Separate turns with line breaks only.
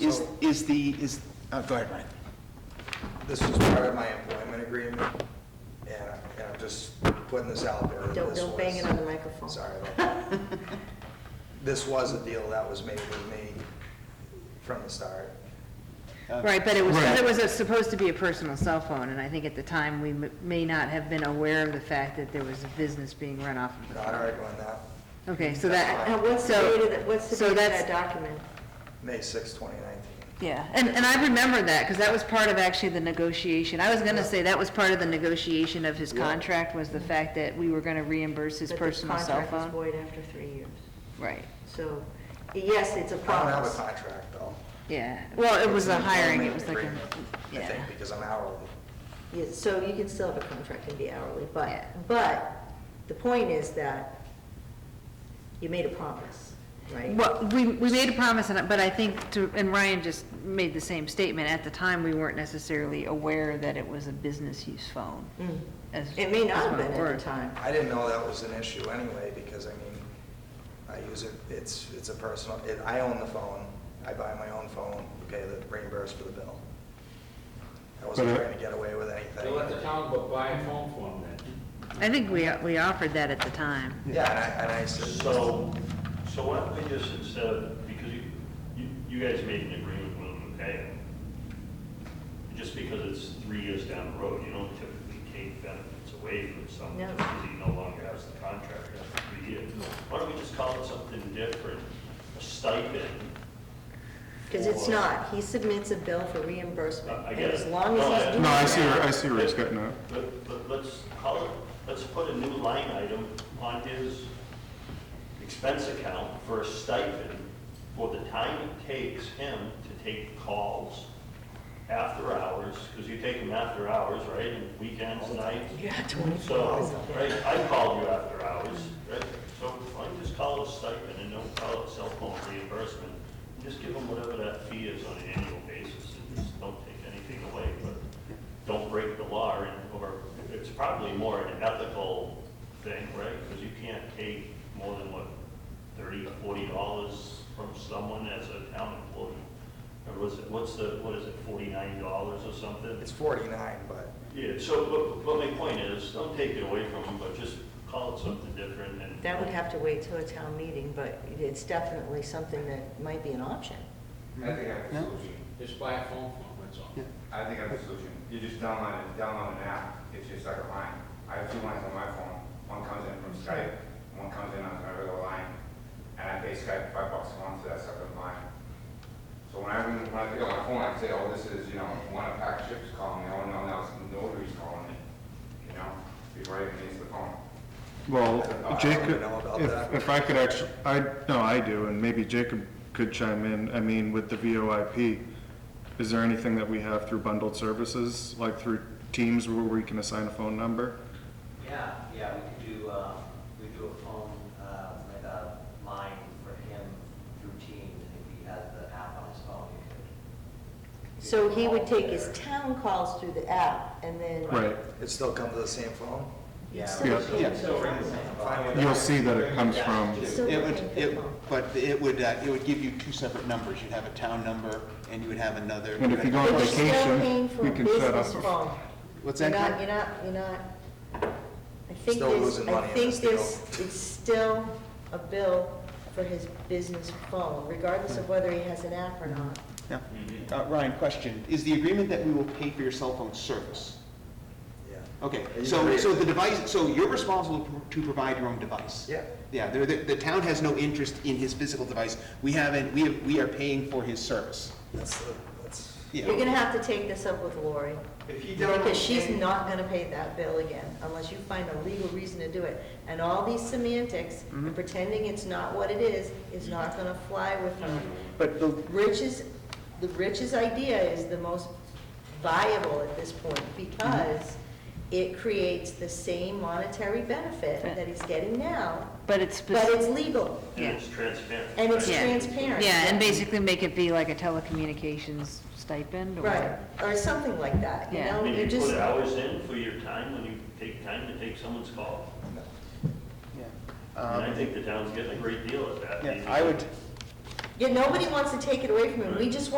Is,
So-
is the, is, uh, go ahead, Ryan.
This is part of my employment agreement, and I- and I'm just putting this out there. that
Don't,
this
don't bang
was-
it on the microphone.
Sorry about that. This was a deal that was made with me from the start.
Right, but it was,
Right.
it was supposed to be a personal cell phone, and I think at the time, we m- may not have been aware of the fact that there was a business being run off of the
Not
phone.
arguing that,
Okay, so
And
that,
what's the date of
so,
that, what's the
so
date of
that's-
that document?
May 6, 2019.
yeah, and, and I remember that, because that was part of actually the negotiation. I was gonna say, that was part of the negotiation of his contract, was the fact that we were gonna reimburse his
That the
personal cell
Contract is
phone.
void after three years.
Right,
So, yes, it's a
I don't have a
promise.
contract, though.
yeah, well, it was
It's
a
an
hiring, it
employment
was like a,
agreement, I
yeah.
think, because I'm hourly.
Yeah, So you can still have a contract and be hourly,
Yeah.
but, but the point is that you made a promise, right?
Well, we, we made a promise, and I- but I think, to and Ryan just made the same statement, at the time, we weren't necessarily aware that it was a business use phone.
Mm.
as-
It may not
as
have
my
been at
word.
the time.
I didn't know that was an issue anyway, because I mean, I use it, it's, it's a personal, it- I own the phone, I buy my own phone, pay the reimburse for the bill. I wasn't
But, uh,
trying to get away with anything.
They let the town go buy a phone for them then.
I think we, we offered that at the time.
Yeah, and I, and I said,
So, so why don't we just instead of, because you, you, you guys made an agreement with them, okay? Just because it's three years down the road, you don't typically take benefits away from someone
No.
just because he no longer has the contract after three years. Why don't we just call it something different, a stipend?
Because it's
for-
not, he submits a bill for reimbursement,
I- I
and
get
as
it.
long
No,
as
I-
he's doing
No, I see where, I
that,
see where he's getting at.
But, but let's call it, let's put a new line item on his expense account for a stipend for the time it takes him to take calls after hours, because you take them after hours, right, and weekends, nights.
yeah, twenty-four hours
So,
a day.
right, I called you after hours, right, so why don't you just call it a stipend and don't call it cell phone reimbursement? Just give them whatever that fee is on an annual basis and just don't take anything away, but don't break the law and, or it's probably more an ethical thing, right? Because you can't take more than what, thirty, forty dollars from someone as a town employee. Or was it, what's the, what is it, forty-nine dollars or something?
it's forty-nine, but
Yeah, so, but, but my point is, don't take it away from them, but just call it something different and.
That would have to wait till a town meeting, but it's definitely something that might be an option.
I think I have a solution.
Just buy a phone for them, that's all.
I think I have a solution. You just download it, download an app. It's just like a line. I have two lines on my phone. One comes in from Skype, and one comes in on my regular line. And I pay Skype five bucks a month for that second line. So when I, ring- when I pick up my phone, I say, oh, this is, you know, one of Pack Chip's calling me. Oh, no, now it's notary's calling me. You know, before I even answer the phone.
Well, Jacob,
know about that.
if, if I could actually, I, no, I do, and maybe Jacob could chime in. I mean, with the VoIP, is there anything that we have through bundled services, like through Teams where we can assign a phone number?
Yeah, yeah, we could do, uh, we do a phone, uh, like a line for him through Teams, and if he has the app on his phone, you could.
So he would take his town calls through the app and then.
Right,
it still comes to the same phone?
Yeah.
Still-
Yeah,
yeah.
still-
Uh,
Fine with
you'll see that it comes from,
Yeah.
still
It
looking
would,
at the
it,
phone.
but it would, uh, it would give you two separate numbers. You'd have a town number and you would have another.
and if you go on
But you're still paying
vacation,
for
we
a
can set
business
up.
phone.
What's
You're not,
that? Ken?
you're not, you're not, I think
Still
there's,
losing money
I
on
think
this deal.
there's, it's still a bill for his business phone, regardless of whether he has an app or not.
Yeah. Uh, Ryan, question. Is the agreement that we will pay for your cell phone service?
Yeah.
Okay,
You
so,
agree.
so the device, so you're responsible to provide your own device?
Yeah.
Yeah, the, the, the town has no interest in his physical device. We haven't, we have, we are paying for his service.
That's, the- that's,
Yeah.
You're gonna have to take this up with Lori,
if you don't.
because she's not gonna pay that bill again, unless you find a legal reason to do it. And all these semantics,
Mm-hmm.
and pretending it's not what it is, is not gonna fly with her.
Mm-hmm.
But the,
Rich's, the Rich's idea is the most viable at this point because
Mm-hmm.
it creates the same monetary benefit that he's getting now,
But it's,
but
spec-
it's legal
And it's transparent.
and it's
Yeah.
transparent.
yeah, and basically make it be like a telecommunications stipend
Right,
or,
or something like that, you
Yeah.
I
know,
mean,
you
you
just,
put hours in for your time when you take time to take someone's call.
yeah.
And I
Um,
think the town's getting a great deal at that.
Yeah, I would,
yeah, nobody wants to take it away from him, we just